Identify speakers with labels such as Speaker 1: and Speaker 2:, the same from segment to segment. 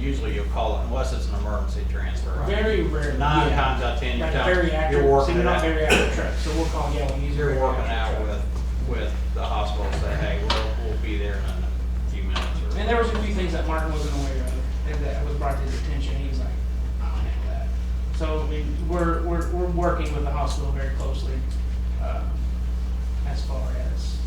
Speaker 1: usually you'll call it, unless it's an emergency transfer, right?
Speaker 2: Very rare.
Speaker 1: Nine
Speaker 2: yeah.
Speaker 1: times out of ten, you're
Speaker 2: Like
Speaker 1: telling-
Speaker 2: very accurate,
Speaker 1: you're working
Speaker 2: so
Speaker 1: it
Speaker 2: not
Speaker 1: out.
Speaker 2: very accurate truck, so we'll call Yellow. He's
Speaker 1: You're
Speaker 2: very
Speaker 1: working
Speaker 2: accurate
Speaker 1: out
Speaker 2: truck.
Speaker 1: with, with the hospital, say, hey, we'll, we'll be there in a few minutes or.
Speaker 2: And there was a few things that Martin wasn't aware of that was brought to his attention. He was like, I don't handle that. So I mean, we're, we're, we're working with the hospital very closely, uh, as far as,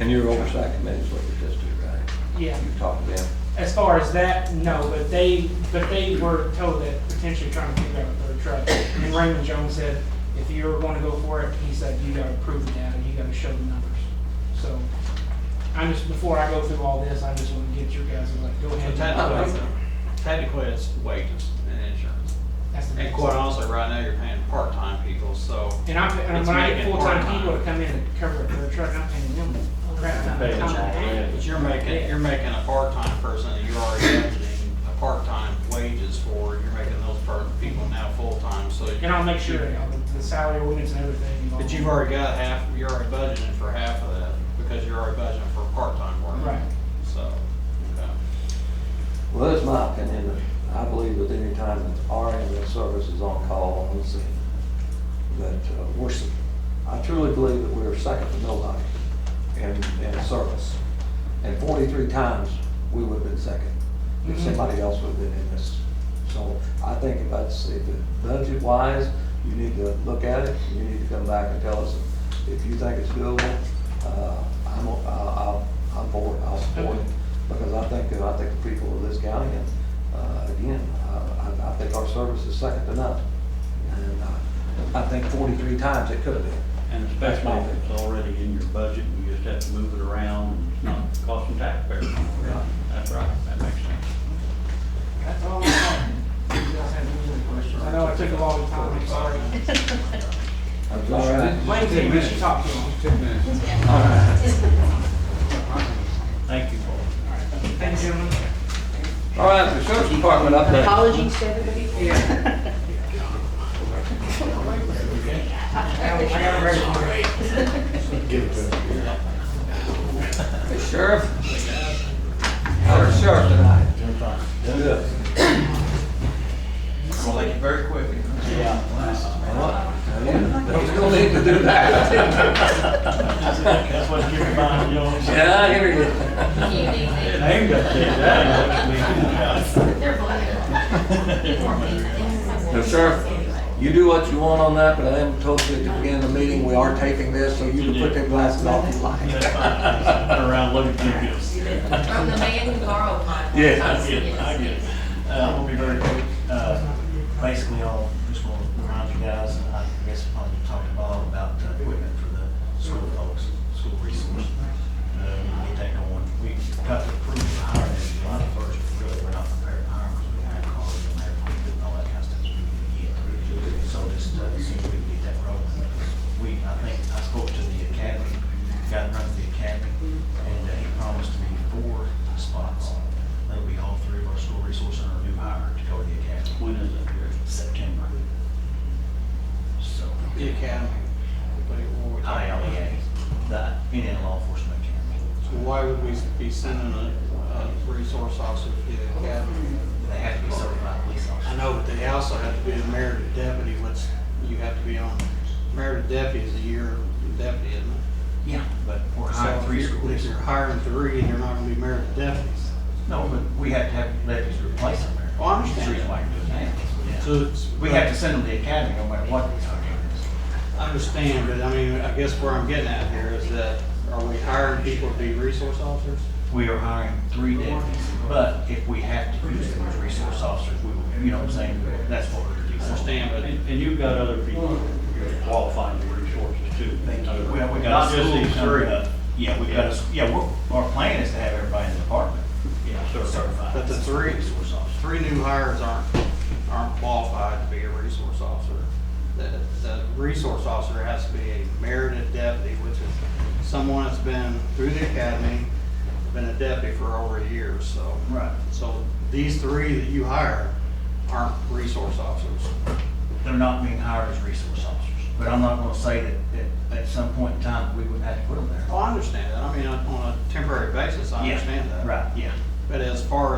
Speaker 3: And your oversight committee is looking at this too, right?
Speaker 2: yeah.
Speaker 3: You've talked to them.
Speaker 2: As far as that, no, but they, but they were told that potentially trying to figure out a third truck. And Raymond Jones said, if you're gonna go for it, he said, you gotta prove the data, you gotta show the numbers. So, I'm just, before I go through all this, I just wanna get your guys, like, go
Speaker 1: So
Speaker 2: ahead. and-
Speaker 1: Technically, technically it's wages and insurance.
Speaker 2: That's the
Speaker 1: And
Speaker 2: next
Speaker 1: quite
Speaker 2: one.
Speaker 1: honestly, right now, you're paying part-time people, so.
Speaker 2: And I'm, and
Speaker 1: It's
Speaker 2: when I get
Speaker 1: making
Speaker 2: full-time
Speaker 1: part-time.
Speaker 2: people to come in and cover a third truck, I'm paying them a crap ton of
Speaker 4: Paying them all
Speaker 2: time.
Speaker 4: in.
Speaker 1: But you're making, you're making a part-time person that you're already budgeting a part-time wages for, you're making those part, people now full-time, so.
Speaker 2: And I'll make sure, you know, the- the salary ordinance and everything.
Speaker 1: But you've already got half, you're already budgeting for half of that, because you're already budgeting for part-time work.
Speaker 2: Right.
Speaker 1: So, okay.
Speaker 3: Well, that's my opinion. that I believe that any time that our ambulance service is on call on the scene, that uh, we're, s- I truly believe that we're second to nobody in, in service. And forty-three times, we would have been second if
Speaker 2: Mhm.
Speaker 3: somebody else would have been in this. So I think if that's, if it budget-wise, you need to look at it, you need to come back and tell us if you think it's doable. Uh, I'm, o- I'll, I'll- I'm for it, I'll support it, because I think, uh, I think the people of this county, and, uh, again, I, I- I think our service is second to none. And uh, I think forty-three times it could have been.
Speaker 4: And
Speaker 3: That's
Speaker 4: especially
Speaker 3: my
Speaker 4: if it's already in your budget, you just have to move it around, and it's not costing taxpayers.
Speaker 3: Right.
Speaker 4: That's right, that makes sense.
Speaker 2: That's all I have. You guys have any other questions? I know it took a long time, I'm sorry.
Speaker 3: That's all right.
Speaker 2: Blame Tim, we should talk to him.
Speaker 3: All right.
Speaker 4: Thank you, Paul.
Speaker 2: Thank you, gentlemen.
Speaker 3: All right, the sheriff's department update.
Speaker 5: Apologies to everybody.
Speaker 2: I got a record for it.
Speaker 3: Hey, Sheriff. How's our sheriff tonight? Good. Well, you don't need to do that.
Speaker 4: That's what you're buying, you know.
Speaker 3: Yeah, I hear you.
Speaker 4: Name got changed, that
Speaker 5: They're
Speaker 3: Now, Sheriff, you do what you want on that, but I am told you at the beginning of the meeting, we are taping this, so you can put them glasses off if you like.
Speaker 4: That's fine. Turn around, look at you, yes.
Speaker 5: From the man who borrowed mine.
Speaker 4: I get it, I get it.
Speaker 6: Uh, I'll be very quick. Uh, Basically, I'll just want to remind you guys, and I guess I'll talk to Bob about the equipment for the school folks, school resource. Uh, We take on, we got to approve to hire them July first, but really, we're not prepared to hire them because we hired cars and hired equipment and all that kind of stuff. so we didn't get. So just, uh, see if we can get that rolling. We, I think, I spoke to the academy, got run to the academy, and uh, he promised me four spots. That'll be all three of our school resource and our new hire to go to the academy.
Speaker 4: When is it?
Speaker 6: September. So,
Speaker 1: The academy. but it will-
Speaker 6: ILEA, the Indiana Law Enforcement Academy.
Speaker 1: So why would we be sending a, a resource officer to the academy?
Speaker 6: They have to be certified police
Speaker 1: I
Speaker 6: officers.
Speaker 1: know, but they also have to be a merited deputy, which you have to be on, merited deputy is a year deputy, isn't it?
Speaker 6: Yeah. But we're
Speaker 1: So
Speaker 6: hiring
Speaker 1: if
Speaker 6: three
Speaker 1: you're-
Speaker 6: school
Speaker 1: If you're
Speaker 6: resources.
Speaker 1: hiring three, you're not gonna be merited deputies.
Speaker 6: No, but we have to have deputies to replace them. there.
Speaker 1: Well, Oh, I
Speaker 6: That's the
Speaker 1: understand.
Speaker 6: reason why you're doing that. Yeah.
Speaker 1: So it's.
Speaker 6: We have to send them to the academy no matter what. the target is.
Speaker 1: I Understand, but I mean, I guess where I'm getting at here is that, are we hiring people to be resource officers?
Speaker 6: We are hiring three deputies, but if we have to use them as resource officers, we will, you know what I'm saying? That's what we're doing.
Speaker 1: I Understand, but
Speaker 4: And and you've got other people qualifying for resources too.
Speaker 6: Thank you. Well, we
Speaker 4: Not
Speaker 6: got a
Speaker 4: just
Speaker 6: school
Speaker 4: these
Speaker 6: coming
Speaker 4: three.
Speaker 6: up. Yeah, we got, a s- yeah, we're, our plan is to have everybody in the department
Speaker 4: Yeah, sure.
Speaker 6: certified.
Speaker 1: But the
Speaker 6: as
Speaker 1: three-
Speaker 6: Resource officers.
Speaker 1: three new hires aren't, aren't qualified to be a resource officer. The, the resource officer has to be a merited deputy, which is someone that's been through the academy, been a deputy for over a year, so.
Speaker 6: Right.
Speaker 1: So these three that you hire aren't resource officers.
Speaker 6: They're not being hired as resource officers. But I'm not gonna say that, that at some point in time, we would have to put them there.
Speaker 1: Well, I understand that, I mean, on a temporary basis, I
Speaker 6: Yeah,
Speaker 1: understand that.
Speaker 6: Right, yeah.
Speaker 1: But as far